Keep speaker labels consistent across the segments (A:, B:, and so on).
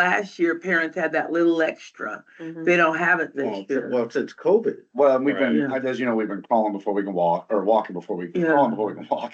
A: last year, parents had that little extra.
B: Mm-hmm.
A: They don't have it
C: Well,
A: this year.
C: well, since COVID.
D: Well, and we've been,
A: Right.
D: as you know, we've been crawling before we can walk, or walking before we,
A: Yeah.
D: crawling before we can walk.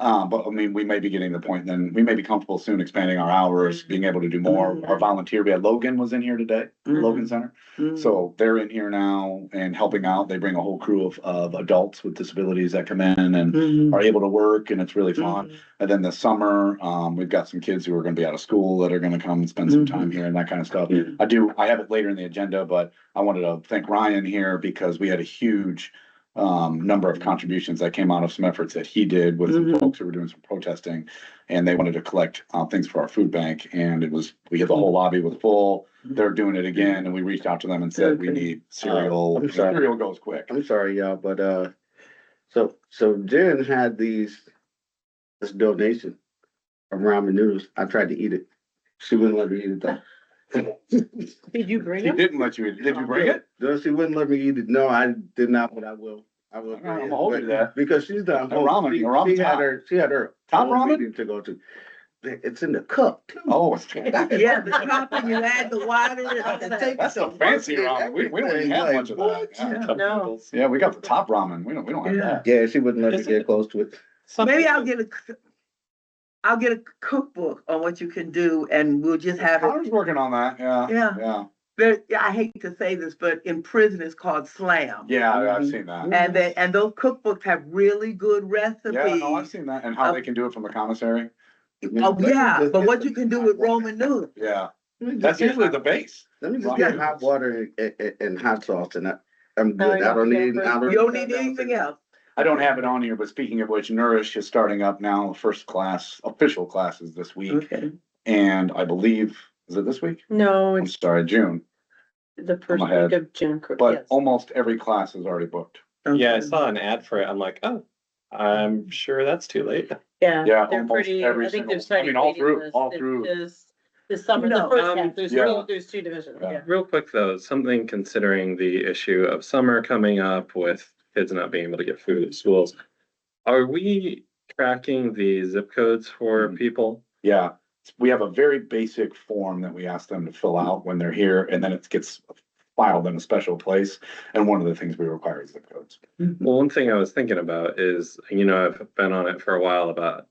D: Um, but I mean, we may be getting to the point then, we may be comfortable soon expanding our
A: Mm-hmm.
D: hours, being able to do more. Our volunteer, we had Logan was in here today, Logan Center.
A: Mhm.
D: So they're in here now and helping out. They bring a whole crew of, of adults with disabilities that come in and
A: Mhm.
D: are able to work and it's really
A: Mm-hmm.
D: fun. And then this summer, um, we've got some kids who are gonna be out of school that are gonna come and spend
A: Mm-hmm.
D: some time here and that kind of stuff.
A: Mhm.
D: I do, I have it later in the agenda, but I wanted to thank Ryan here because we had a huge um, number of contributions that came out of some efforts that he did with some
A: Mhm.
D: folks who were doing some protesting. And they wanted to collect uh, things for our food bank and it was, we had the whole lobby was full. They're doing it again and we reached out to them and said, we
A: Okay.
D: need cereal.
C: I'm sorry.
D: Cereal goes quick.
C: I'm sorry, y'all, but, uh, so, so Jen had these, this donation of ramen noodles. I tried to eat it. She wouldn't let me eat it though.
B: Did you bring
D: He didn't let you, did you bring it?
C: No, she wouldn't let me eat it. No, I did not, but I will. I will.
D: I'm gonna hold you that.
C: Because she's done.
D: That ramen-
C: She-
D: ramen
C: She had
D: top.
C: her, she had her.
D: Top
C: own
D: ramen?
C: meeting To go to. It's in the cup too.
D: Oh, it's.
A: Yeah, the top and you add the water. and all that.
D: That's so fancy ramen. We, we don't even have much of that. Yeah.
B: No.
D: Yeah, we got the top ramen. We don't, we don't have that.
C: Yeah, she wouldn't let me
B: Is
C: get close to it.
A: Maybe I'll get a, c- I'll get a cookbook on what you can do and we'll just have it.
D: Connor's working on that, yeah,
A: Yeah,
D: yeah,
A: there, yeah, I hate to say this, but in prison it's called slam.
D: yeah, I- I've seen that.
A: And they, and those cookbooks have really good
D: Yeah, no, I've
A: recipes.
D: seen that, and how they can do it from the commissary,
A: Oh, yeah, but what you can do with Roman noodles.
D: yeah,
C: Let me
D: that's
C: just get
D: usually
C: hot-
D: the base.
C: Let me just
D: ramen
C: get hot
D: noodles.
C: water and, and, and hot sauce and I, I'm
B: No,
C: good.
B: you
C: I don't
B: don't
C: need,
B: care
C: I
B: for-
C: don't.
A: You don't need anything else.
D: I don't have it on here, but speaking of which, Nourish is starting up now, first class, official classes this week,
A: Okay.
D: and I believe, is it this week?
B: No,
D: I'm
B: it's
D: sorry, June,
B: the first
D: ahead.
B: week of June. cor-
D: but
B: yes.
D: almost every class is already booked.
E: Yeah, I
A: okay.
E: saw an ad for it. I'm like, oh, I'm sure that's too late.
D: yeah,
B: Yeah, they're
D: almost
B: pretty,
D: every
B: I think
D: single- I
B: they're starting.
D: mean, all
B: waiting
D: through-
B: lists
D: all
B: this-
D: through.
B: This, this summer, the
A: No,
B: first
E: um,
B: half, there's
D: yeah.
B: two, there's two divisions,
D: Yeah.
B: yeah.
E: Real quick though, something considering the issue of summer coming up with kids not being able to get food at schools. Are we tracking the zip codes for
D: Mhm.
E: people?
D: Yeah, we have a very basic form that we ask them to fill out when they're here, and then it gets filed in a special place. And one of the things we require is zip codes.
A: Mhm.
E: Well, one thing I was thinking about is, you know, I've been on it for a while about,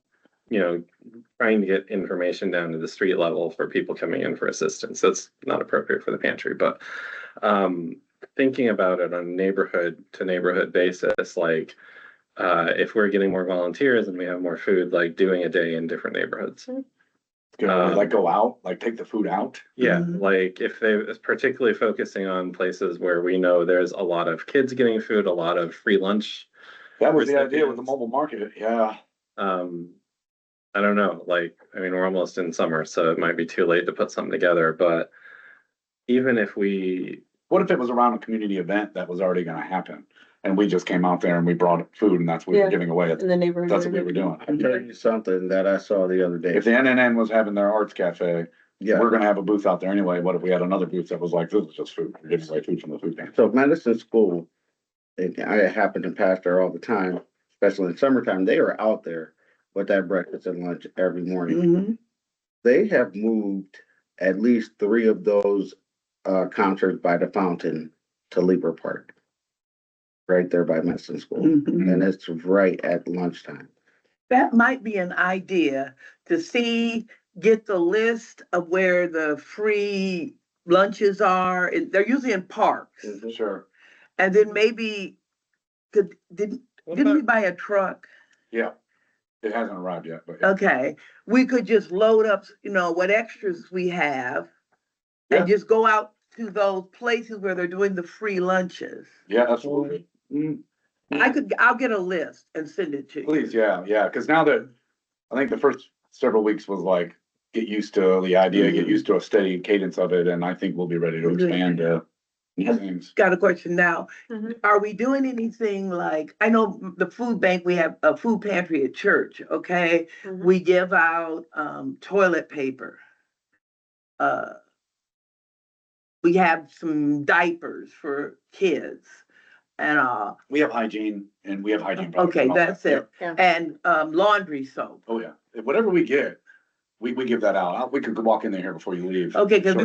E: you know, trying to get information down to the street level for people coming in for assistance. That's not appropriate for the pantry, but um, thinking about it on neighborhood to neighborhood basis, like uh, if we're getting more volunteers and we have more food, like doing a day in different neighborhoods.
D: You know,
E: Um,
D: like go out, like take the food out.
E: Yeah,
A: Mhm.
E: like if they particularly focusing on places where we know there's a lot of kids getting food, a lot of free lunch
D: That was the
E: Recipients.
D: idea with the mobile market, yeah.
E: um i don't know like i mean we're almost in summer so it might be too late to put something together but even if we
D: What if it was around a community event that was already gonna happen? And we just came out there and we brought food and that's what we
B: Yeah.
D: were giving away.
B: In the neighborhood.
D: That's what we were doing.
C: I'll tell you something that I saw the other day.
D: If the NNN was having their arts cafe,
C: Yeah,
D: we're gonna have a booth out there anyway. What if we had another booth that was like, this is just food, we're giving away food from the food bank?
C: so medicine school, and I happen to pass there all the time, especially in summertime, they are out there with that breakfast and lunch every morning.
A: Mhm.
C: They have moved at least three of those uh concerts by the fountain to Lieber Park. Right there by medicine school,
A: Mhm.
C: and it's right at lunchtime.
A: That might be an idea to see, get the list of where the free lunches are. and They're usually in parks.
D: Mm-hmm. Sure,
A: And then maybe, could, didn't,
E: what
A: didn't we
E: about,
A: buy a truck?
D: yeah. It hasn't arrived yet, but. yeah.
A: Okay, we could just load up, you know, what extras we have.
D: Yeah.
A: And just go out to those places where they're doing the free lunches.
D: Yeah, absolutely. Mm,
A: I could, I'll get a list and send it to you.
D: Please, yeah, yeah, because now that, I think the first several weeks was like, get used to the idea, get
A: Mhm.
D: used to a steady cadence of it, and I think we'll be ready to
A: Good.
D: expand to new things.
A: Got a question now.
D: Mm-hmm.
B: Mhm.
A: Are we doing anything like, I know m- the food bank, we have a food pantry at church, okay?
D: Mm-hmm.
B: Mhm.
A: We give out um toilet paper. Uh. We have some diapers for kids and uh,
D: We have hygiene and we have hygiene. products
A: okay,
D: and all that.
A: that's it.
B: Yeah.
A: And um laundry soap.
D: Oh, yeah, whatever we get, We, we give that out. We could walk in there here before you leave.
A: Okay, 'cause